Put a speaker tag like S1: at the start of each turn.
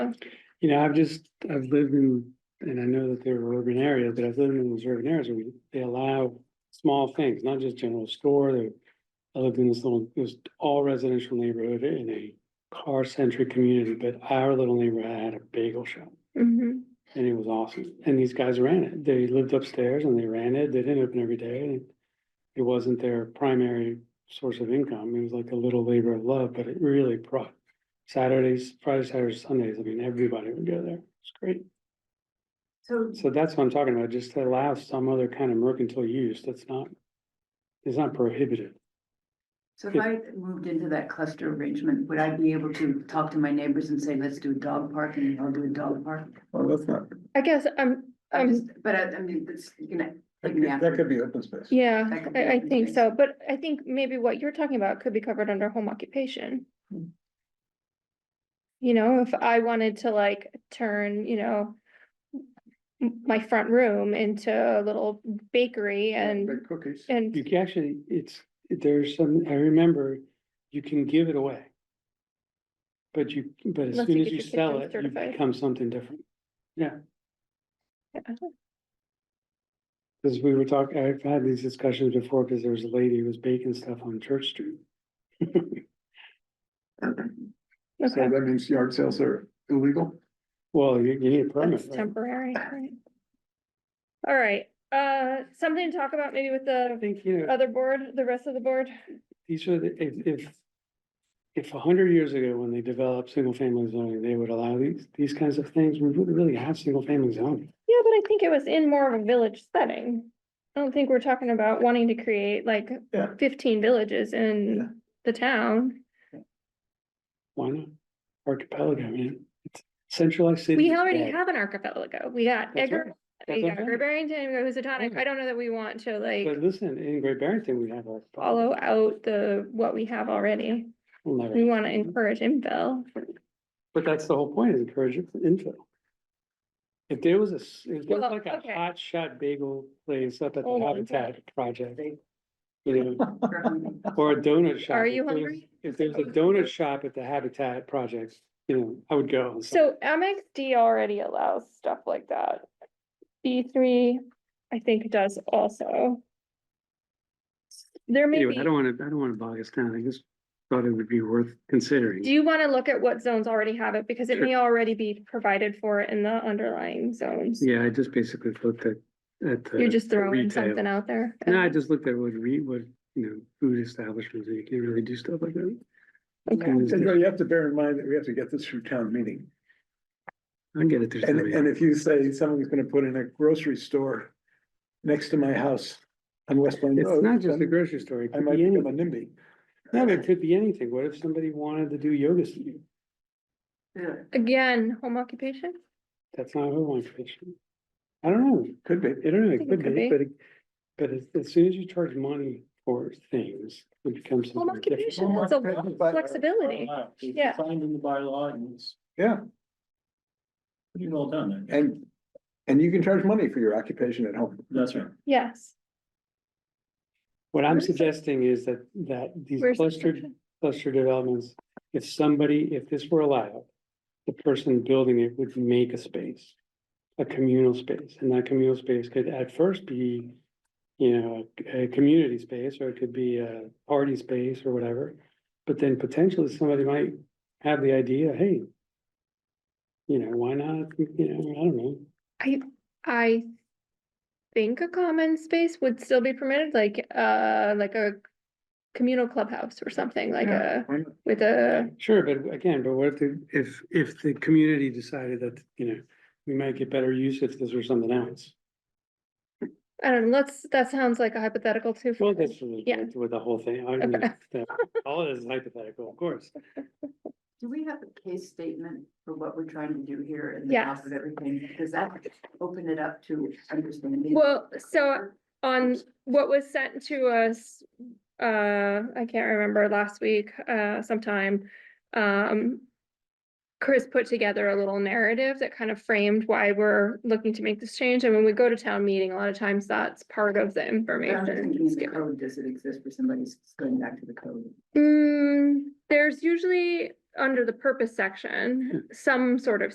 S1: You know, I've just, I've lived in, and I know that there are urban areas, but I've lived in those urban areas where they allow small things, not just general store. They- I lived in this little, this all residential neighborhood in a car centric community, but our little neighborhood had a bagel shop.
S2: Mhm.
S1: And it was awesome. And these guys ran it. They lived upstairs and they ran it. They didn't open every day. and It wasn't their primary source of income. It was like a little labor of love, but it really brought Saturdays, Fridays, Saturdays, Sundays. I mean, everybody would go there. It's great.
S3: So,
S1: So that's what I'm talking about. Just to allow some other kind of mercantile use that's not, it's not prohibited.
S3: so if I moved into that cluster arrangement, would I be able to talk to my neighbors and say, let's do a dog park and I'll do a dog park?
S4: Well, that's not,
S2: I guess um, I'm,
S3: I
S2: I'm,
S3: just, but uh, I, I mean, that's, you know,
S4: Um, that
S3: like
S4: could-
S3: an
S4: that could be open space.
S2: yeah,
S3: that could be
S2: I, I
S3: open
S2: think
S3: space.
S2: so, but I think maybe what you're talking about could be covered under home occupation.
S3: Hmm.
S2: You know, if I wanted to like turn, you know, m- my front room into a little bakery and,
S4: Big cookies.
S2: and
S1: You can actually, it's, there's some, I remember, you can give it away. But you, but as
S2: Unless
S1: soon
S2: you
S1: as
S2: get
S1: you
S2: your
S1: sell
S2: kitchen
S1: it, you
S2: certified.
S1: become something different.
S2: yeah,
S1: Cause we were talking, I've had these discussions before, cause there was a lady who was baking stuff on Church Street.
S4: So
S2: okay,
S4: that means yard sales are illegal?
S1: Well, you, you need a permit,
S2: that's
S1: right?
S2: temporary, right? All right, uh, something to talk about maybe with
S1: I
S2: the
S1: think, you know,
S2: other board, the rest of the board?
S1: these are the, if, if. If a hundred years ago, when they developed single family zoning, they would allow these, these kinds of things, we wouldn't really have single family zoning.
S2: Yeah, but I think it was in more of a village setting. I don't think we're talking about wanting to create like
S4: Yeah.
S2: fifteen villages
S4: Yeah.
S2: in the town.
S1: Why not? Archipelago, man. It's centralized city.
S2: We
S1: is
S2: already
S1: bad.
S2: have an archipelago. We got
S1: That's
S2: Edgar,
S1: right. That's
S2: we
S1: what
S2: got
S1: I'm
S2: Great Barrington, we got Housatonic.
S1: Yeah.
S2: I don't know that we want to like
S1: But listen, in Great Barrington, we have a.
S2: follow out the, what we have already.
S1: We'll never-
S2: We want to encourage infill.
S1: But that's the whole point, is encourage infill. If there was a, s- if there was
S2: Well,
S1: like a
S2: okay. Oh
S1: hot shot bagel place up at the
S2: Hold on.
S1: Habitat Project. You know,
S3: Or-
S1: or a donut shop.
S2: Are
S1: if
S2: you
S1: there was-
S2: hungry?
S1: If there's a donut shop at the Habitat Project, you know, I would go.
S2: So Amex D already allows stuff like that. B three, I think does also. There may
S1: Anyway,
S2: be.
S1: I don't wanna, I don't wanna bog us down, I just thought it would be worth considering.
S2: Do you want to look at what zones already have it? Because it
S1: Sure.
S2: may already be provided for in the underlying zones.
S1: Yeah, I just basically looked at, at. the
S2: You're just throwing
S1: retail.
S2: something out there.
S1: No, I just looked at what re, what, you know, food establishments, you can really do stuff like that. And
S2: Okay.
S4: And
S1: it's-
S4: you know, you have to bear in mind that we have to get this through town meeting.
S1: I get it. there's
S4: And,
S1: somebody-
S4: and if you say someone's gonna put in a grocery store next to my house on Westland Road.
S1: It's not just the
S4: then
S1: grocery store. It
S4: I
S1: could
S4: might
S1: be
S4: become a
S1: anything.
S4: NIMBY.
S1: No, but it could be anything. What if somebody wanted to do yoga studio?
S3: Yeah.
S2: Again, home occupation?
S1: That's not home occupation. I don't know.
S4: Could be.
S1: I don't know.
S2: think
S1: It
S2: it
S1: could
S2: could
S1: be,
S2: be.
S1: but, it- but as, as soon as you charge money for things, it becomes.
S2: Home
S1: something different.
S2: occupation has a lot of flexibility. Yeah.
S5: Signed in the bylaw and it's
S4: Yeah,
S5: pretty well done there.
S4: and, and you can charge money for your occupation at home.
S5: That's right.
S2: Yes.
S1: What I'm
S2: Where's the-
S1: suggesting is that, that these
S2: Where's the
S1: clustered
S2: section?
S1: cluster developments, if somebody, if this were allowed, the person building it would make a space, a communal space, and that communal space could at first be, you know, a, a community space, or it could be a party space or whatever. But then potentially somebody might have the idea, hey, you know, why not, you know, I don't know,
S2: I, I think a common space would still be permitted, like, uh, like a communal clubhouse or something like a,
S4: Why not?
S2: with a,
S1: Sure, but again, but what if the, if, if the community decided that, you know, we might get better use if this were something else?
S2: I don't know, let's, that sounds like a hypothetical too. for
S1: Well,
S2: me.
S1: that's really
S2: Yeah.
S1: with the whole thing. I mean,
S2: Okay.
S1: that- All it is hypothetical, of course.
S3: Do we have a case statement for what we're trying to do here in the
S2: Yes.
S3: top of everything? Does that open it up to understanding?
S2: Well, so on what was sent to us, uh, I can't remember, last week, uh, sometime, um. Chris put together a little narrative that kind of framed why we're looking to make this change, and when we go to town meeting, a lot of times that's part of the
S3: I'm
S2: information.
S3: thinking
S2: that's
S3: the
S2: given.
S3: code, does it exist for somebody who's going back to the code?
S2: Mm, there's usually, under the purpose section, some sort of